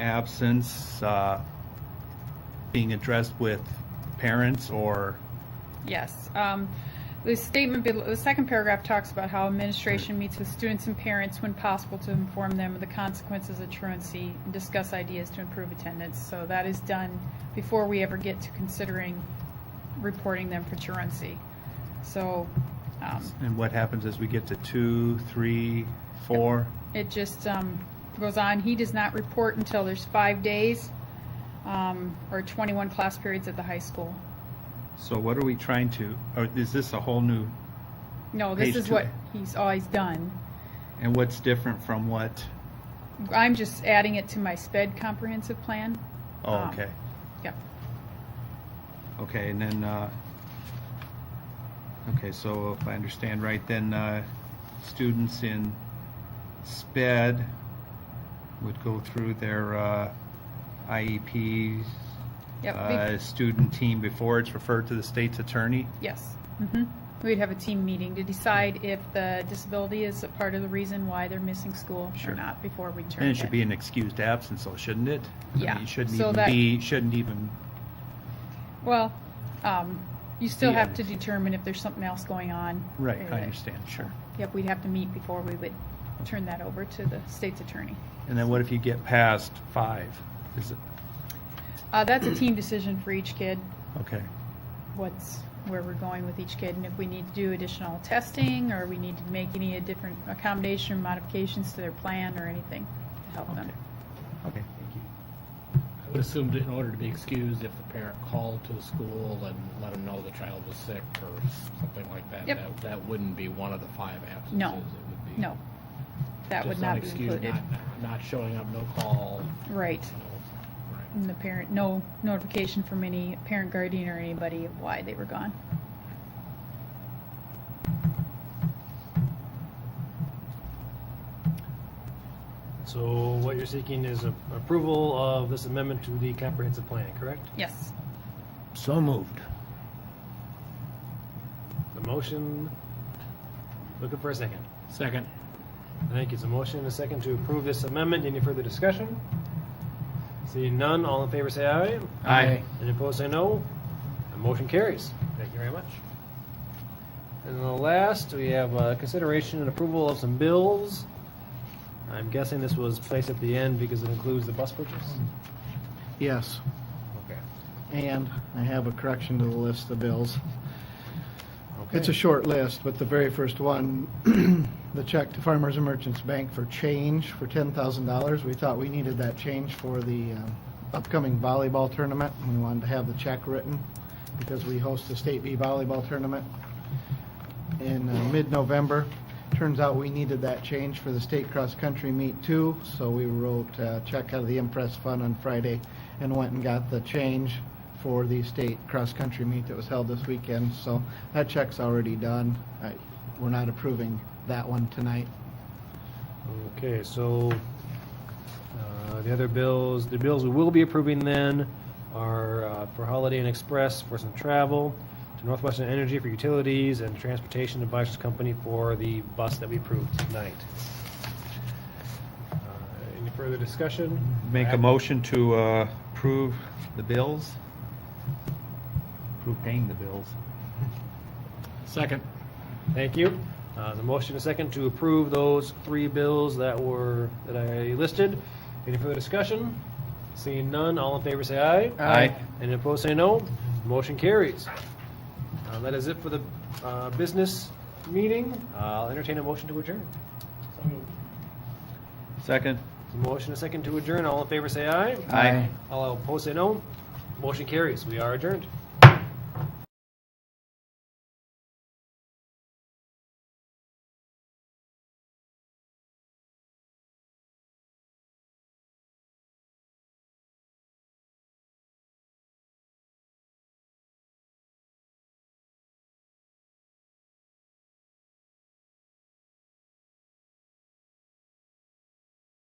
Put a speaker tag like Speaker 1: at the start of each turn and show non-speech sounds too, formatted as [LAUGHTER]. Speaker 1: absence uh, being addressed with parents or,
Speaker 2: Yes. Um, The statement, bel- the second paragraph talks about how administration meets with students and parents when possible to inform them of the consequences of truancy and discuss ideas to improve attendance. So that is done before we ever get to considering reporting them for truancy. So um,
Speaker 1: and what happens as we get to two, three, four?
Speaker 2: it just um, goes on. He does not report until there's five days um, or 21 class periods at the high school.
Speaker 1: So what are we trying to, or is this a whole new,
Speaker 2: No, this
Speaker 1: Page
Speaker 2: is
Speaker 1: two.
Speaker 2: what he's always done.
Speaker 1: and what's different from what?
Speaker 2: I'm just adding it to my sped comprehensive plan.
Speaker 1: Oh,
Speaker 2: Um,
Speaker 1: okay,
Speaker 2: Yep.
Speaker 1: okay, and then, uh, okay, so if I understand right, then uh, students in SPED would go through their uh, IEPs,
Speaker 2: Yep. we-
Speaker 1: uh, student team before it's referred to the state's attorney?
Speaker 2: Yes. hmm We'd have a team meeting to decide if the disability is a part of the reason why they're missing school or
Speaker 1: Sure.
Speaker 2: not before we turn
Speaker 1: Then
Speaker 2: it
Speaker 1: it should be an excused absence, though, shouldn't it? I mean,
Speaker 2: Yeah,
Speaker 1: It shouldn't
Speaker 2: so
Speaker 1: even
Speaker 2: that-
Speaker 1: be, shouldn't even,
Speaker 2: Well, um, you still
Speaker 1: Yeah.
Speaker 2: have to determine if there's something else going on.
Speaker 1: right,
Speaker 2: Uh,
Speaker 1: I understand, sure.
Speaker 2: Yep, we'd have to meet before we would turn that over to the state's attorney.
Speaker 1: And then what if you get past five? Is it,
Speaker 2: Uh, that's a team decision for each kid.
Speaker 1: okay,
Speaker 2: what's, where we're going with each kid, and if we need to do additional testing, or we need to make any different accommodation, modifications to their plan, or anything to help
Speaker 1: okay,
Speaker 2: them.
Speaker 1: okay.
Speaker 3: I would assume that in order to be excused, if the parent called to the school and let them know the child was sick or something like that,
Speaker 2: Yep.
Speaker 3: that, that wouldn't be one of the five absences.
Speaker 2: No.
Speaker 3: It would be
Speaker 2: No, that would
Speaker 3: just
Speaker 2: not be
Speaker 3: excuse,
Speaker 2: included.
Speaker 3: Not, not showing up, no call,
Speaker 2: Right,
Speaker 3: no, right.
Speaker 2: and the parent, no notification from any parent, guardian, or anybody of why they were gone.
Speaker 4: So what you're seeking is a- approval of this amendment to the comprehensive plan, correct?
Speaker 2: Yes,
Speaker 1: So moved.
Speaker 4: The motion, looking for a second.
Speaker 3: Second.
Speaker 4: Thank you. It's a motion and a second to approve this amendment. Any further discussion? Seeing none, all in favor say aye.
Speaker 1: Aye.
Speaker 4: Any opposed say no. The motion carries. Thank you very much. And the last, we have uh, consideration and approval of some bills. I'm guessing this was placed at the end because it includes the bus purchase.
Speaker 5: Yes,
Speaker 4: Okay.
Speaker 5: and I have a correction to the list of bills. It's a short list, but the very first one, [CLEARS THROAT] the check to Farmers and Merchants Bank for change for ten thousand dollars. We thought we needed that change for the um, upcoming volleyball tournament. and We wanted to have the check written because we host the State B volleyball tournament in uh, mid-November. Turns out we needed that change for the state cross-country meet too, so we wrote a check out of the Impress Fund on Friday and went and got the change for the state cross-country meet that was held this weekend, so that check's already done. I- We're not approving that one tonight.
Speaker 4: Okay, so uh, the other bills, the bills we will be approving then are uh, for Holiday Inn Express for some travel, to Northwestern Energy for utilities, and Transportation Advisors Company for the bus that we approved tonight. Uh, Any further discussion?
Speaker 1: Make a motion to uh, approve the bills? Approve paying the bills.
Speaker 3: Second.
Speaker 4: Thank you. Uh, The motion is second to approve those three bills that were, that I listed. Any further discussion? Seeing none, all in favor say aye.
Speaker 1: Aye.
Speaker 4: And opposed, say no. Motion carries. Uh, That is it for the uh, business meeting. Uh, I'll entertain a motion to adjourn.
Speaker 1: Second?
Speaker 4: There's a Motion, a second to adjourn. All in favor, say aye.
Speaker 1: Aye.
Speaker 4: All opposed, say no. Motion carries. We are adjourned.